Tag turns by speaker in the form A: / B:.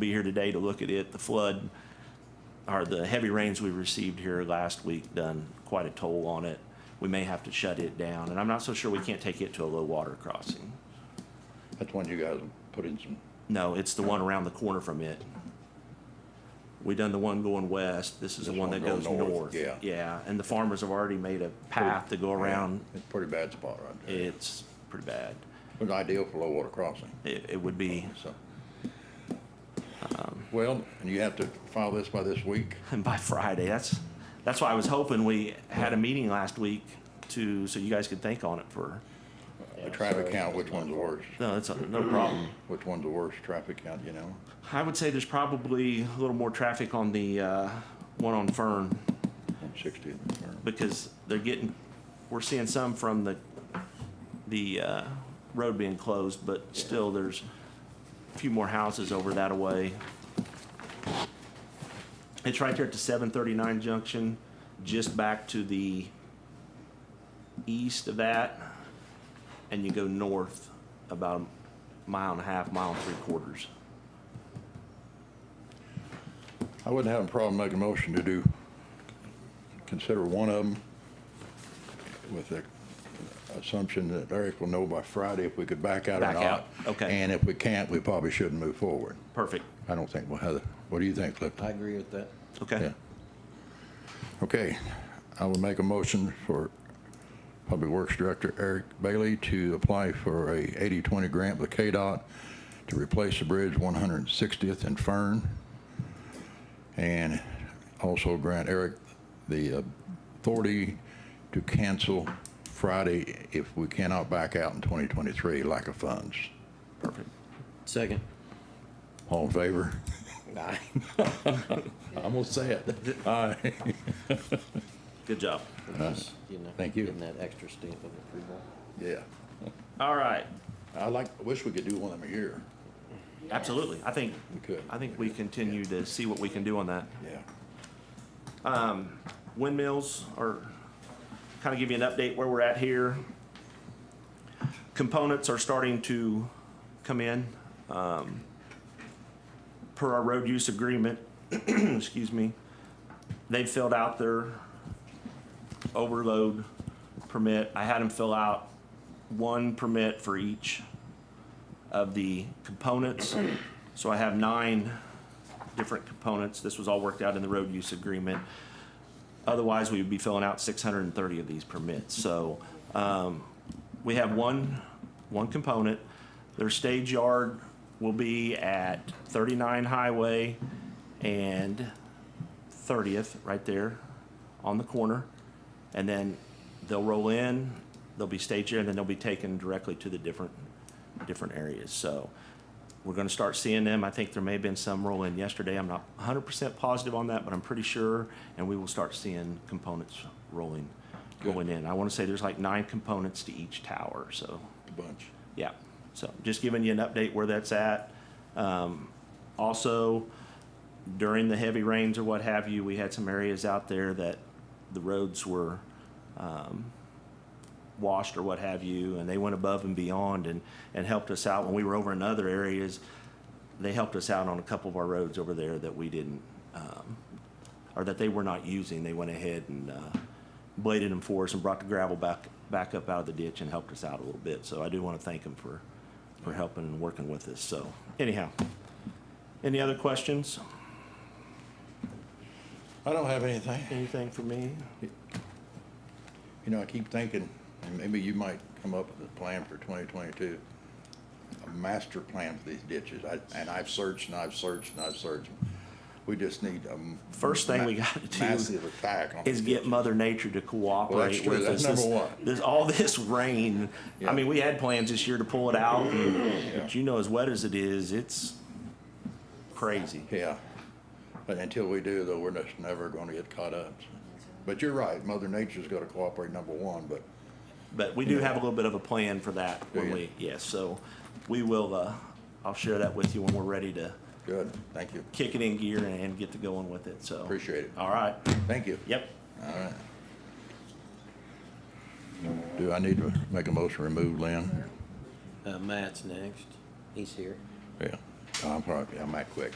A: be here today to look at it. The flood, or the heavy rains we received here last week done quite a toll on it. We may have to shut it down, and I'm not so sure we can't take it to a low water crossing.
B: That's when you guys put in some,
A: No, it's the one around the corner from it. We done the one going west, this is the
B: This
A: one
B: one
A: that goes
B: going north,
A: north.
B: yeah.
A: Yeah, and the farmers have already made a path to go around.
B: it's a pretty bad spot right there.
A: It's pretty bad.
B: It was ideal for low water crossing,
A: It, it would be,
B: so.
A: Um.
B: Well, and you have to file this by this week.
A: and by Friday, that's, that's why I was hoping we had a meeting last week to, so you guys could think on it for
B: The traffic count, which one's the worst?
A: No, that's no problem.
B: Which one's the worst traffic count, you know?
A: I would say there's probably a little more traffic on the uh, one on Fern
B: One sixty.
A: because they're getting, we're seeing some from the, the uh, road being closed, but still there's a few more houses over that away. It's right there at the 739 junction, just back to the east of that, and you go north about a mile and a half, mile and three quarters.
B: I wouldn't have a problem making a motion to do, consider one of them with the assumption that Eric will know by Friday if we could back out or
A: Back
B: not.
A: out, okay.
B: And if we can't, we probably shouldn't move forward.
A: Perfect.
B: I don't think, well, Heather, what do you think, Clifton?
C: I agree with that.
A: Okay.
B: Yeah. Okay, I would make a motion for Public Works Director Eric Bailey to apply for a 80-20 grant with KDOT to replace the bridge 160th and Fern, and also grant Eric the authority to cancel Friday if we cannot back out in 2023, lack of funds.
A: Perfect.
C: Second.
B: All in favor?
C: Aye.
B: I'm gonna say it. Aye.
A: Good job.
B: Thank you.
C: Getting that extra stamp of approval.
B: Yeah.
A: All right.
B: I like, I wish we could do one of them a year.
A: Absolutely. I think,
B: We could.
A: I think we continue to see what we can do on that.
B: Yeah.
A: Windmills are, kind of give you an update where we're at here. Components are starting to come in. Um, Per our road use agreement, excuse me, they filled out their overload permit. I had them fill out one permit for each of the components. So I have nine different components. This was all worked out in the road use agreement. Otherwise, we would be filling out six hundred and thirty of these permits. So, um, we have one, one component. Their stage yard will be at thirty-nine Highway and Thirtieth, right there on the corner. And then they'll roll in, they'll be staged here, and then they'll be taken directly to the different, different areas. So, we're gonna start seeing them. I think there may have been some roll in yesterday. I'm not hundred percent positive on that, but I'm pretty sure. And we will start seeing components rolling, rolling in. I wanna say there's like nine components to each tower, so,
B: A bunch.
A: yeah. So just giving you an update where that's at. Um, also, during the heavy rains or what have you, we had some areas out there that the roads were, um, washed or what have you, and they went above and beyond and, and helped us out when we were over in other areas. They helped us out on a couple of our roads over there that we didn't, um, or that they were not using. They went ahead and, uh, bladed them for us and brought the gravel back, back up out of the ditch and helped us out a little bit. So I do want to thank them for, for helping and working with us. So anyhow, any other questions?
B: I don't have anything.
A: Anything for me?
B: You know, I keep thinking, and maybe you might come up with a plan for twenty twenty-two. A master plan for these ditches. I, and I've searched and I've searched and I've searched. We just need a. m-
A: First thing we
B: ma-
A: gotta do
B: Massive attack on.
A: is
B: these
A: get
B: ditches.
A: Mother Nature to
B: Well, that's
A: cooperate
B: true.
A: with us.
B: That's
A: This-
B: number one.
A: This, all this rain, I
B: Yeah.
A: mean, we had plans this year to pull it out, but you know, as wet as it is, it's crazy.
B: Yeah. But until we do though, we're just never gonna get caught up. But you're right, Mother Nature's gotta cooperate, number one, but
A: But we do have a little bit of a plan for that when
B: you?
A: we, yes, so we will, uh, I'll share that with you when we're ready to
B: good. Thank you.
A: kick it in gear and, and get to going with it, so.
B: Appreciate it.
A: All right,
B: Thank you.
A: yep.
B: Do I need to make a motion to remove Lynn?
C: Uh, Matt's next. He's here.
B: Yeah. I'm sorry, I'm that quick.